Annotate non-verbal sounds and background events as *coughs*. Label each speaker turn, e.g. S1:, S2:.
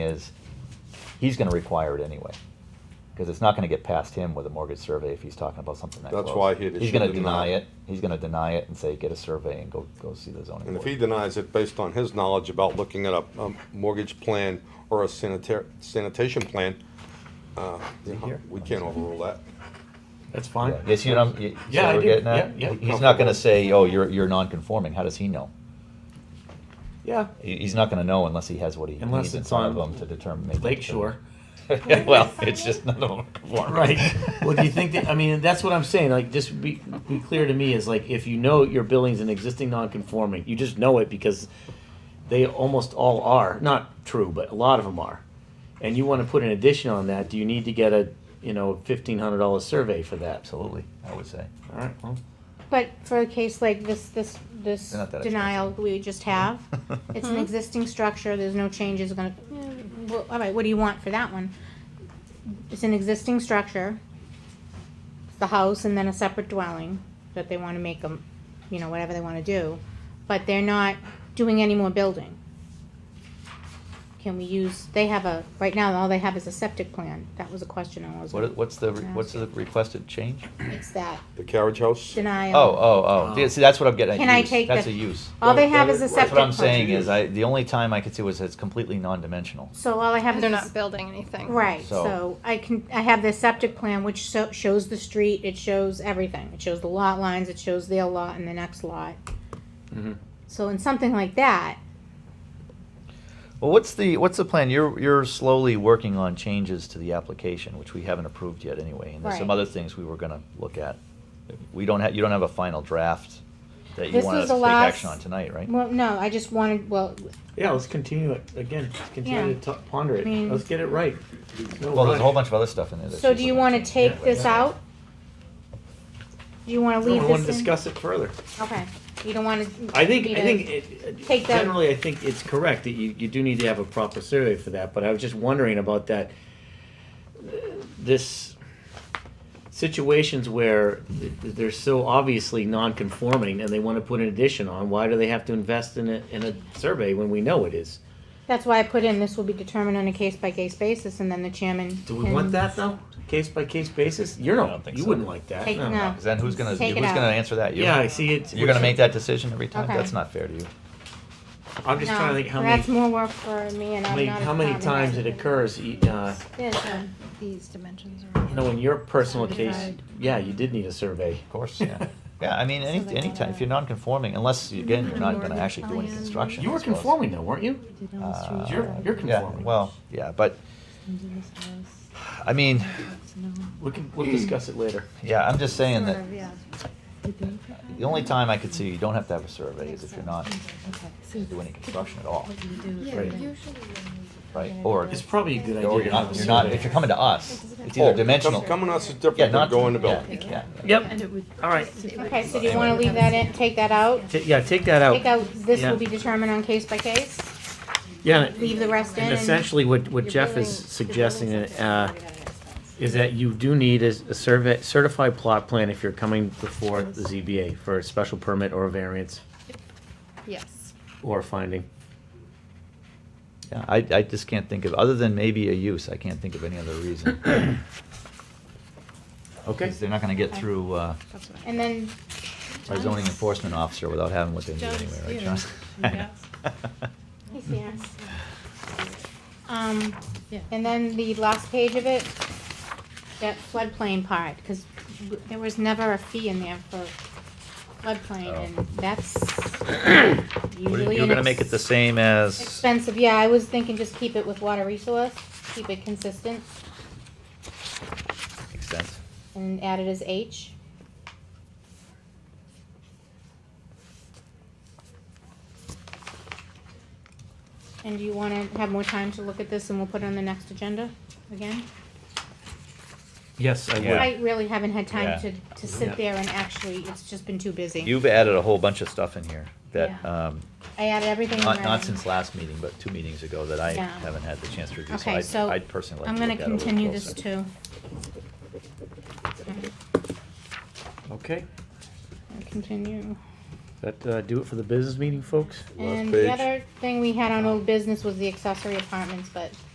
S1: he's going to require it anyway. Because it's not going to get past him with a mortgage survey if he's talking about something that
S2: That's
S1: close.
S2: why he'd
S1: He's going to
S2: issue the
S1: deny
S2: denial.
S1: it. He's going to deny it and say, get a survey and go, go see the zoning
S2: And if
S1: board.
S2: he denies it based on his knowledge about looking at a, a mortgage plan or a sanitar- sanitation plan, uh, you know,
S1: here?
S2: we can't overrule that.
S3: That's fine.
S1: Yeah, You see what I'm, you see
S3: Yeah,
S1: what
S3: I
S1: we're
S3: do.
S1: getting at?
S3: Yeah, yeah.
S1: He's not going to say, oh, you're, you're non-conforming. How does he know?
S3: Yeah.
S1: He- He's not going to know unless he has what he
S3: Unless
S1: needs in
S3: it's
S1: front of
S3: on
S1: him to determine. make a
S3: Lakeshore.
S1: determination. *laughs* Well, it's just none of them conform.
S3: *laughs* Right. Well, do you think that, I mean, that's what I'm saying, like, just be, be clear to me is like, if you know your building's an existing non-conforming, you just know it because they almost all are, not true, but a lot of them are. And you wanna put an addition on that, do you need to get a, you know, fifteen hundred dollar survey for that? So,
S1: Absolutely, I would say.
S3: Alright, well,
S4: But for a case like this, this, this
S1: They're not that Mm-hmm.
S4: denial we
S1: *laughs*
S4: just have, it's an existing structure, there's no changes gonna, Mm, well, all right, what do you want for that one? It's an existing structure, it's the house and then a separate dwelling that they wanna make them, you know, whatever they wanna do, but they're not doing any more building. Can we use, they have a, right now, all they have is a septic plan, that was a question I was,
S1: What, what's the, what's the requested change?
S4: it's that
S2: The carriage house?
S4: denial.
S1: Oh, oh, oh,
S3: Oh.
S1: yeah, see, that's what I'm getting at.
S4: Can I
S1: use.
S4: take
S1: That's
S4: the-
S1: a use.
S4: All they have is a
S2: That's
S4: septic
S1: That's what I'm
S4: plan.
S1: saying is, I, the only time I could see was it's completely non-dimensional.
S4: So all I have is
S5: And they're
S4: this-
S5: not building anything.
S4: Right,
S1: So-
S4: so I can, I have this septic plan which so, shows the street, it shows everything, it shows the lot lines, it shows their lot and the next lot.
S1: Mm-hmm.
S3: Mhm.
S4: So in something like that,
S1: Well, what's the, what's the plan? You're, you're slowly working on changes to the application, which we haven't approved yet anyway, and there's some
S4: Right.
S1: other things we were gonna look at. We don't have, you don't have a final draft that you
S4: This
S1: want
S4: was
S1: us to
S4: the
S1: take action on
S4: last-
S1: tonight, right?
S4: well, no, I just wanted, well,
S3: yeah, let's continue it, again, let's continue
S4: Yeah.
S3: to ta- ponder
S4: I mean-
S3: it, let's get it right. No
S1: Well, there's a whole
S3: rush.
S1: bunch of other stuff in there. that
S4: so
S1: she's
S4: do you
S1: looking at
S4: wanna
S1: changing
S4: take
S1: anyway.
S4: this out? Do you wanna
S3: No,
S4: leave
S3: I wanna
S4: this in?
S3: discuss it further.
S4: Okay, you don't wanna.
S3: I think,
S4: me
S3: I
S4: to-
S3: think, it-
S4: take that-
S3: generally, I think it's correct that you, you do need to have a proper survey for that, but I was just wondering about that. This situations where th- they're so obviously non-conforming and they wanna put an addition on, why do they have to invest in a, in a survey when we know it is?
S4: That's why I put in, this will be determined on a case by case basis and then the chairman.
S3: Do we want
S4: can-
S3: that though? Case by case basis? You're
S1: I don't
S3: not,
S1: think
S3: you
S1: so.
S3: wouldn't like that,
S4: Take-
S3: no.
S4: no.
S1: Cause then who's gonna, who's
S4: Take it
S1: gonna
S4: out.
S1: answer that? You?
S3: Yeah, I see it's.
S1: You're gonna make that decision every time?
S4: Okay.
S1: That's not fair to you.
S3: I'm just
S4: No,
S3: trying to think how many,
S4: That's more work for me and
S3: how
S4: I'm
S3: many,
S4: not. a
S3: how many
S4: department
S3: times
S4: head.
S3: it occurs, e- uh,
S4: This one.
S5: These dimensions are.
S3: You know, in your personal case,
S5: Certified.
S3: yeah, you did need a survey.
S1: Of
S3: *laughs*
S1: course, yeah. Yeah, I mean,
S5: So
S1: any,
S5: they
S1: anytime, if
S5: gotta-
S1: you're non-conforming, unless, again, you're not gonna actually do any
S5: Plan.
S1: construction.
S3: You
S1: I
S3: were
S1: suppose.
S3: conforming though, weren't you?
S1: Uh,
S3: You're- you're
S1: yeah,
S3: conforming.
S1: Well, yeah, but, I mean,
S3: We can, we'll discuss it later.
S1: yeah, I'm just saying that the
S5: The
S1: only time I could see you don't have to have a survey is if you're not doing any construction at all,
S3: Right.
S1: right? Or,
S3: It's probably a good idea.
S1: or
S3: to
S1: you're
S3: have
S1: not,
S3: a
S1: you're not,
S3: survey.
S1: if you're coming to us, it's
S2: Oh,
S1: either
S2: com-
S1: dimensional.
S2: Coming to us is
S1: Yeah,
S2: different
S1: not-
S2: than going to
S1: yeah,
S2: building.
S1: Yeah,
S3: Yep. All right.
S4: Okay, so do you wanna leave that in, take that out?
S3: Ta- Yeah, take that
S4: Take
S3: out.
S4: out, this
S3: Yeah.
S4: will be determined on case by case,
S3: Yeah,
S4: leave
S3: and
S4: the rest in
S3: and
S4: and,
S3: essentially what, what Jeff is suggesting, uh, is that you do need a, a survey, certified plot plan if you're coming before the ZBA for a special permit or a variance
S5: Yes.
S3: or a finding.
S1: yeah. I, I just can't think of, other than maybe a use, I can't think of any other reason.
S3: Okay.
S1: Because they're not gonna get through, uh,
S4: and then,
S1: by zoning enforcement officer without having what they need
S5: John's
S1: anyway, right,
S5: here.
S1: John?
S4: he's here. Um,
S5: Yeah.
S4: and then the last page of it, that floodplain part, cause w- there was never a fee in there for floodplain
S1: Oh.
S4: and
S1: *coughs*
S4: that's
S1: *laughs* What are you-
S4: usually
S1: You're
S4: an
S1: gonna make it the
S4: ex-
S1: same as,
S4: expensive, yeah, I was thinking just keep it with water resource, keep it consistent
S1: makes sense.
S4: and add it as H. And do you wanna have more time to look at this and we'll put it on the next agenda again?
S3: Yes, I
S1: Yeah.
S3: would.
S4: I really haven't had
S1: Yeah.
S4: time to, to
S3: Yeah.
S4: sit there and actually, it's just been too busy.
S1: You've added a whole bunch of stuff in here that,
S4: Yeah.
S1: um,
S4: I added everything in
S1: not, not
S4: red.
S1: since last meeting, but two meetings ago that I
S4: Yeah.
S1: haven't had the chance to review,
S4: Okay,
S1: so
S4: so
S1: I'd, I'd personally like
S4: I'm
S1: to
S4: gonna
S1: look at it a little
S4: continue this
S1: closer.
S4: too.
S3: Okay.
S4: I'll Continue.
S3: That, uh, do it for the business meeting, folks?
S2: Last
S4: And
S2: page.
S4: the other thing we had on old business was the accessory apartments, but